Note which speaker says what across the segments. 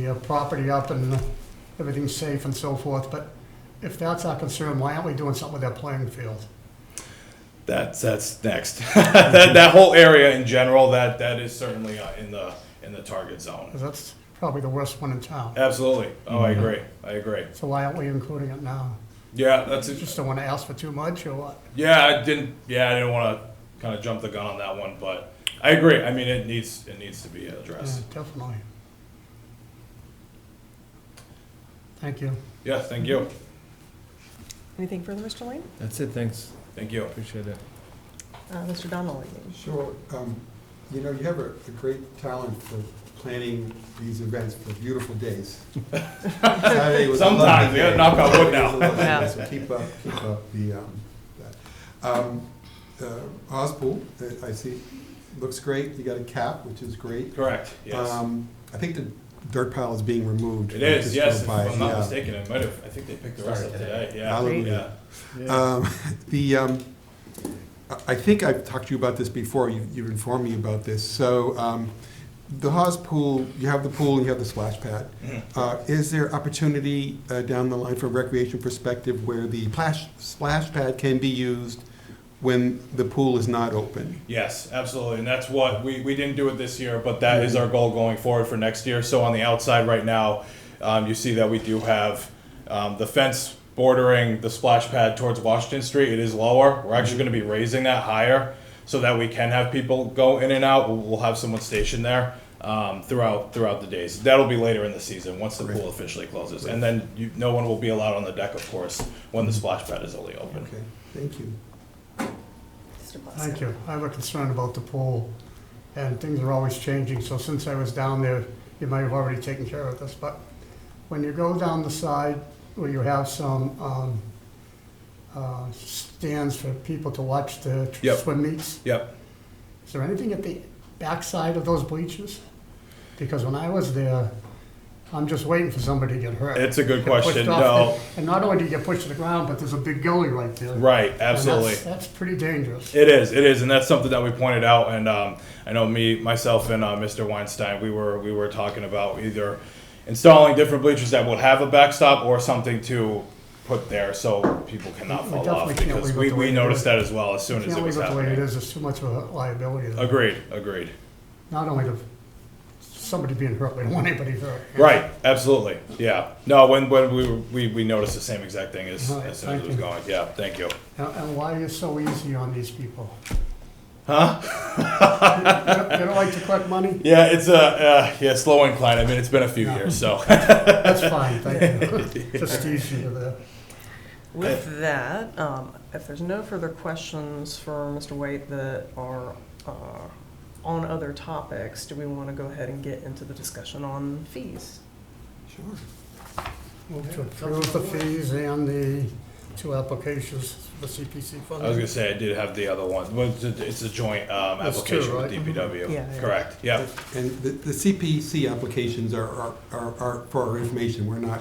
Speaker 1: your property up and everything's safe and so forth, but if that's our concern, why aren't we doing something with that playing field?
Speaker 2: That's that's next. that, that whole area in general, that that is certainly uh, in the in the target zone.
Speaker 1: Because that's probably the worst one in town.
Speaker 2: Absolutely. Oh, I agree. I agree.
Speaker 1: So why aren't we including it now?
Speaker 2: Yeah, that's
Speaker 1: Just
Speaker 2: it.
Speaker 1: don't want to ask for too much or what?
Speaker 2: Yeah, I didn't. Yeah, I didn't want to kind of jump the gun on that one, but I agree. I mean, it needs it needs to be
Speaker 1: Yeah,
Speaker 2: addressed.
Speaker 1: Definitely. Thank you.
Speaker 2: Yeah. Thank you.
Speaker 3: Anything further, Mr. Lane?
Speaker 4: That's it, thanks,
Speaker 2: Thank you.
Speaker 4: appreciate it.
Speaker 3: Uh, Mr. Donnelly?
Speaker 5: Sure. Um, You know, you have a a great talent for planning these events for beautiful days. Saturday was a lovely
Speaker 2: Sometimes, yeah,
Speaker 5: day.
Speaker 2: knock on wood
Speaker 5: Saturday
Speaker 2: now.
Speaker 5: was a lovely day,
Speaker 3: Yeah.
Speaker 5: So keep up, keep up the, um, that. Um, uh, Ospool, uh, I see, looks great. You got a cap, which is great.
Speaker 2: Correct. Yes.
Speaker 5: Um, I think the dirt pile is being removed.
Speaker 2: it
Speaker 5: I
Speaker 2: is.
Speaker 5: just
Speaker 2: Yes.
Speaker 5: drove
Speaker 2: If
Speaker 5: by,
Speaker 2: I'm not
Speaker 5: yeah.
Speaker 2: mistaken, I might have. I think they picked the rest up today. Yeah.
Speaker 5: Hallelujah. Um, The, um, I- I think I've talked to you about this before, You- you've informed me about this. So um, the Haas pool, you have the pool and you have the splash pad.
Speaker 2: Mhm.
Speaker 5: Uh, Is there opportunity uh, down the line from a recreation perspective where the plash- splash pad can be used when the pool is not open?
Speaker 2: Yes, absolutely. And that's what we, we didn't do it this year, but that is our goal going forward for next year. So on the outside right now, um, you see that we do have um, the fence bordering the splash pad towards Washington Street. It is lower. We're actually going to be raising that higher so that we can have people go in and out. We'll, we'll have someone stationed there. Um, throughout throughout the days, that'll be later in the season once the pool officially closes, and then you, no one will be allowed on the deck, of course, when the splash pad is only open.
Speaker 5: Okay, thank you.
Speaker 3: Mr. Plasko?
Speaker 1: Thank you. I have a concern about the pool, and things are always changing, so since I was down there, you might have already taken care of this, but when you go down the side where you have some, um, uh, stands for people to watch the tr-
Speaker 2: Yep.
Speaker 1: swim meets,
Speaker 2: Yep.
Speaker 1: is there anything at the backside of those bleachers? Because when I was there, I'm just waiting for somebody to get hurt.
Speaker 2: It's a good
Speaker 1: Get pushed
Speaker 2: question.
Speaker 1: off
Speaker 2: No.
Speaker 1: the- And not only do you get pushed to the ground, but there's a big gully right there. And
Speaker 2: Right.
Speaker 1: that's-
Speaker 2: Absolutely.
Speaker 1: That's pretty dangerous.
Speaker 2: It is, it is, and that's something that we pointed out. And um, I know me, myself, and uh, Mr. Weinstein, we were we were talking about either installing different bleachers that would have a backstop or something to put there so people cannot
Speaker 1: We
Speaker 2: fall
Speaker 1: definitely
Speaker 2: off
Speaker 1: can't
Speaker 2: because
Speaker 1: leave it
Speaker 2: we,
Speaker 1: the way
Speaker 2: we
Speaker 1: it
Speaker 2: noticed
Speaker 1: is.
Speaker 2: that as well as soon as
Speaker 1: Can't
Speaker 2: it was
Speaker 1: leave it the way it
Speaker 2: happening.
Speaker 1: is, there's too much of a liability there.
Speaker 2: Agreed, agreed.
Speaker 1: Not only the, somebody being hurt, we don't want anybody hurt.
Speaker 2: Right, absolutely, yeah. No, when when we were, we, we noticed the same exact thing as,
Speaker 1: Alright,
Speaker 2: as soon as it
Speaker 1: Uh-huh, thank
Speaker 2: was
Speaker 1: you.
Speaker 2: going. Yeah, thank you.
Speaker 1: And and why are you so easy on these people?
Speaker 2: Huh?
Speaker 1: You don't you don't like to collect money?
Speaker 2: Yeah, it's a uh, yeah slow incline. I mean, it's been a few years, so
Speaker 1: That's fine, thank you. Just easy to the,
Speaker 3: With that, um, if there's no further questions for Mr. White that are uh, on other topics, do we want to go ahead and get into the discussion on fees?
Speaker 5: Sure.
Speaker 1: move to approve the fees and the two applications for the CPC
Speaker 2: I was gonna
Speaker 1: funding.
Speaker 2: say I did have the other one. Well, it's a- it's a joint um,
Speaker 1: That's two,
Speaker 2: application
Speaker 1: right? Mm-hmm.
Speaker 2: with DPW.
Speaker 3: Yeah, yeah.
Speaker 2: Correct. Yeah.
Speaker 5: And the, the CPC applications are, are- are, are for our information, we're not,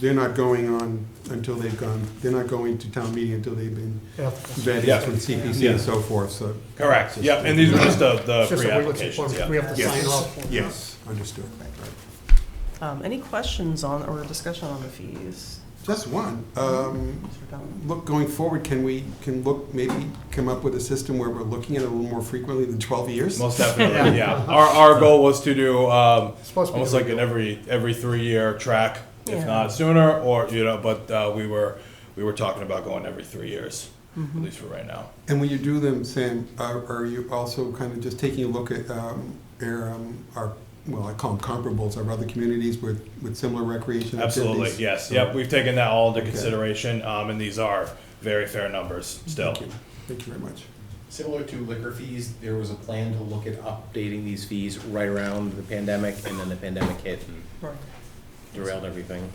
Speaker 5: they're not going on until they've gone, they're not going to town meeting until they've been
Speaker 1: Yeah.
Speaker 2: Yeah.
Speaker 5: vetted from CPC and so forth, so.
Speaker 2: Correct. Yep. And these were just the, the
Speaker 1: It's just that we look
Speaker 2: pre-applications.
Speaker 1: for-
Speaker 2: uh, Yeah.
Speaker 1: We have to
Speaker 2: Yes.
Speaker 1: sign off. for it.
Speaker 5: Yes, understood.
Speaker 3: Um, Any questions on, or discussion on the fees?
Speaker 5: Just one, um,
Speaker 3: Mr. Donnelly?
Speaker 5: look, going forward, can we, can look, maybe come up with a system where we're looking at it a little more frequently than twelve years?
Speaker 2: Most definitely. Yeah. Our, our goal was to do um,
Speaker 1: It's Supposed to be.
Speaker 2: almost like an every every three year track,
Speaker 3: Yeah.
Speaker 2: if not sooner, or you know. But uh, we were we were talking about going every three years,
Speaker 1: Mm-hmm.
Speaker 3: Mm-hmm.
Speaker 2: at least for right now.
Speaker 5: And when you do them, Sam, are, are you also kind of just taking a look at um, our, um, our, well, I call them comparables, our other communities with, with similar recreation
Speaker 2: Absolutely.
Speaker 5: activities?
Speaker 2: Yes.
Speaker 5: So-
Speaker 2: Yep. We've taken that all into
Speaker 5: Okay.
Speaker 2: consideration, um, and these are very fair numbers still.
Speaker 5: Thank you. Thank you very much.
Speaker 6: Similar to liquor fees, there was a plan to look at updating these fees right around the pandemic, and then the pandemic hit and
Speaker 3: Right.
Speaker 6: derailed everything.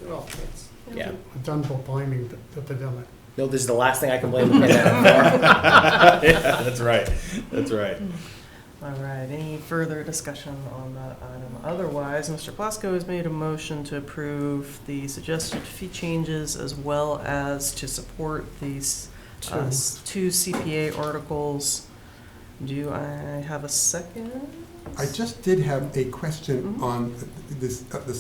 Speaker 6: Yeah.
Speaker 1: We're Done for blaming the- the pandemic.
Speaker 6: No, this is the last thing I can blame the pandemic for.
Speaker 2: yeah. That's right. That's right.
Speaker 3: All right, any further discussion on that item? Otherwise, Mr. Plasko has made a motion to approve the suggested fee changes as well as to support these
Speaker 1: Two.
Speaker 3: uh, s- two CPA articles. Do I have a second?
Speaker 5: I just did have a question
Speaker 3: Mhm.
Speaker 5: on this, uh, the